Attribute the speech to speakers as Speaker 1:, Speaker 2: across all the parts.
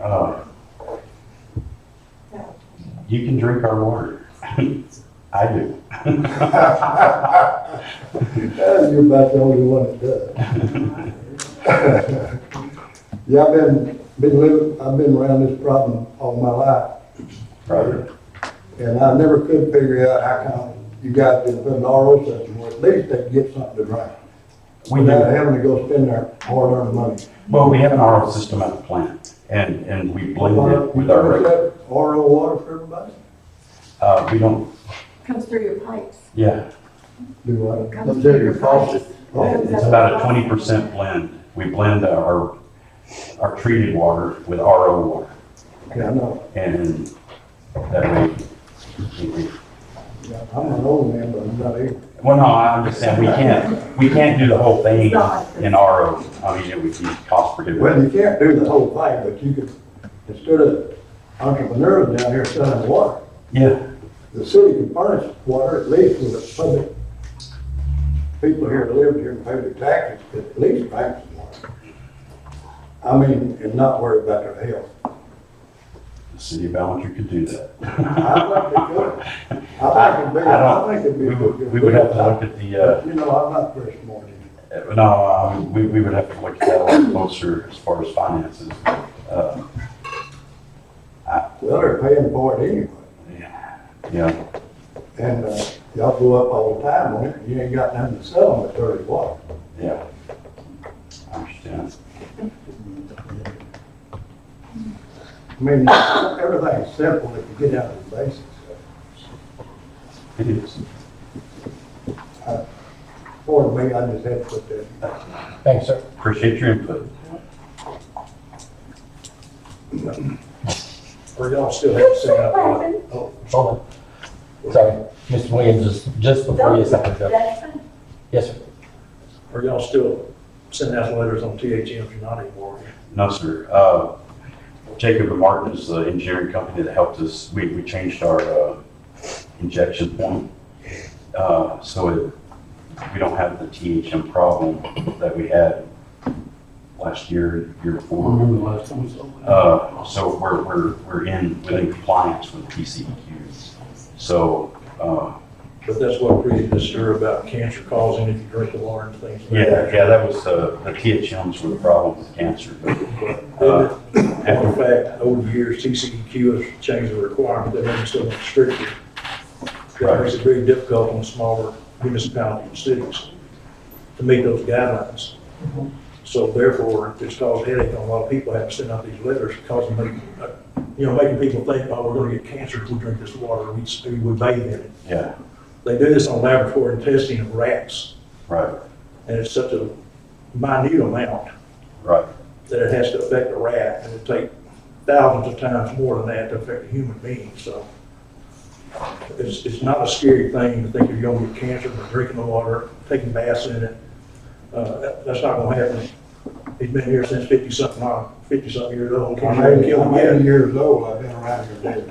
Speaker 1: Uh, You can drink our water. I do.
Speaker 2: You're about the only one that does. Yeah, I've been, been living, I've been around this problem all my life,
Speaker 1: Right?
Speaker 2: and I never could figure out how come you guys didn't put an RO system where at least they could get something to drink.
Speaker 1: We do.
Speaker 2: Without having to go spend their hard-earned money.
Speaker 1: Well, we have an RO system at the plant and, and we blend it with our,
Speaker 2: You
Speaker 1: regular-
Speaker 2: guys got RO water for everybody?
Speaker 1: uh, we don't,
Speaker 3: Comes through your pipes.
Speaker 1: yeah,
Speaker 2: Do I?
Speaker 3: Comes
Speaker 4: Comes through your faucet.
Speaker 2: Oh,
Speaker 1: it's about a twenty percent blend. We blend our, our treated water with RO water.
Speaker 2: Yeah, I know.
Speaker 1: And that way, we-
Speaker 2: Yeah, I'm an old man, but I'm not eighty.
Speaker 1: Well, no, I understand, we can't, we can't do the whole thing in RO, I mean, it would be cost
Speaker 2: Well,
Speaker 1: prohibitive.
Speaker 2: you can't do the whole thing, but you could, instead of entrepreneurs down here selling water,
Speaker 1: Yeah,
Speaker 2: the city can furnish water at least with the public. People here that live here and pay their taxes, could at least drink some water. I mean, and not worry about their health.
Speaker 1: the city of Ballenger could do that.
Speaker 2: I think they could. I think it'd be,
Speaker 1: don't-
Speaker 2: I think it'd be.
Speaker 1: We would, we would have to look at the, uh,
Speaker 2: You know, I'm not very smart.
Speaker 1: uh, no, um, we, we would have to look at that a lot closer as far as finances. Uh,
Speaker 2: Well, they're paying for it anyway.
Speaker 1: Yeah,
Speaker 2: And, uh, y'all go up all the time on it, you ain't got nothing to sell them but dirty water.
Speaker 1: yeah. I understand.
Speaker 2: I mean, everything's simple if you get out of the basics.
Speaker 1: It is.
Speaker 2: For me, I just had to put that.
Speaker 5: Thanks, sir.
Speaker 1: Appreciate your input.
Speaker 5: Or y'all still have to sing out loud.
Speaker 2: Oh,
Speaker 5: Hold on. Sorry, Mr. Williams, just, just before you second go. Yes, sir.
Speaker 6: Are y'all still sending out letters on THMs or not anymore?
Speaker 1: No, sir. Uh, Jacob and Martin is the engineering company that helped us. We, we changed our uh, injection point. Uh, So it- we don't have the THM problem that we had last year, year before.
Speaker 6: the last time we saw
Speaker 1: Uh, So we're, we're, we're in, within compliance with PCEQs. So, uh,
Speaker 6: But that's what created this stir about cancer causing if you drink the water and things. like
Speaker 1: yeah, yeah, that was, uh, the THMs were the problem with cancer. but, uh,
Speaker 6: that. And in fact, over the years, TCEQ has changed the requirement, they've been so much stricter. That makes it very difficult on smaller municipalities and cities to meet those guidelines. So therefore, it's caused headache on a lot of people having to send out these letters, causing, uh, you know, making people think, oh, we're gonna get cancer if we drink this water, we, we bathe in it.
Speaker 1: Yeah,
Speaker 6: They do this on laboratory testing of rats,
Speaker 1: right,
Speaker 6: and it's such a minute amount
Speaker 1: right,
Speaker 6: that it has to affect a rat, and it take thousands of times more than that to affect a human being, so. It's, it's not a scary thing to think you're gonna get cancer from drinking the water, taking baths in it. Uh, that, that's not gonna happen. He's been here since fifty-something, uh, fifty-something years old.
Speaker 2: I'm
Speaker 6: Can't even
Speaker 2: eighty,
Speaker 6: kill
Speaker 2: I'm
Speaker 6: him
Speaker 2: eighty
Speaker 6: yet.
Speaker 2: years old, I've been around here.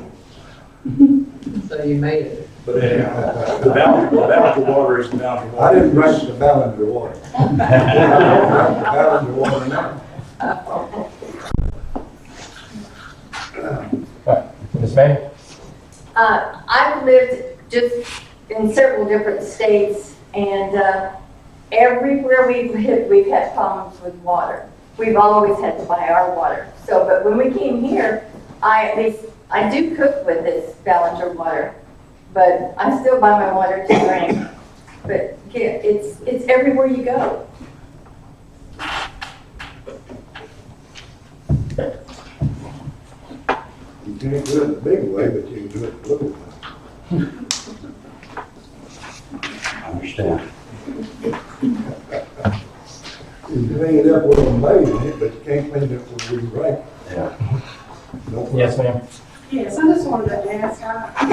Speaker 2: lately.
Speaker 4: So you made it.
Speaker 6: But anyhow, the balance, the balance of water is the balance of
Speaker 2: uh, I
Speaker 6: water.
Speaker 2: didn't drink the Ballinger water. I don't drink the Ballinger water now.
Speaker 5: Ms. May?
Speaker 3: Uh, I've lived just in several different states, and uh, everywhere we've lived, we've had problems with water. We've always had to buy our water. So, but when we came here, I at least, I do cook with this Ballinger water, but I still buy my water to drink. But yeah, it's, it's everywhere you go.
Speaker 2: You can't do it the big way, but you can do it the little way.
Speaker 1: I understand.
Speaker 2: You can clean it up with a maid in it, but you can't clean it up with a drink.
Speaker 1: Yeah.
Speaker 2: No problem.
Speaker 5: Yes, ma'am.
Speaker 7: Yes, I just wanted to ask, I,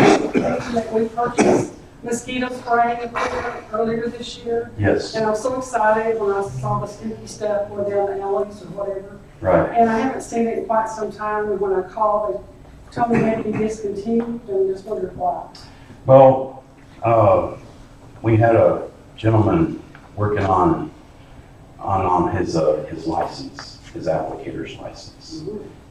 Speaker 7: that we purchased mosquito spraying equipment earlier this year,
Speaker 1: Yes,
Speaker 7: and I'm so excited when I saw the spooky stuff or down the alleys or whatever.
Speaker 1: right,
Speaker 7: And I haven't seen it in quite some time, and when I called, they told me they'd be discontinued, and I just wondered why.
Speaker 1: well, uh, we had a gentleman working on, on, on his, uh, his license, his applicator's license.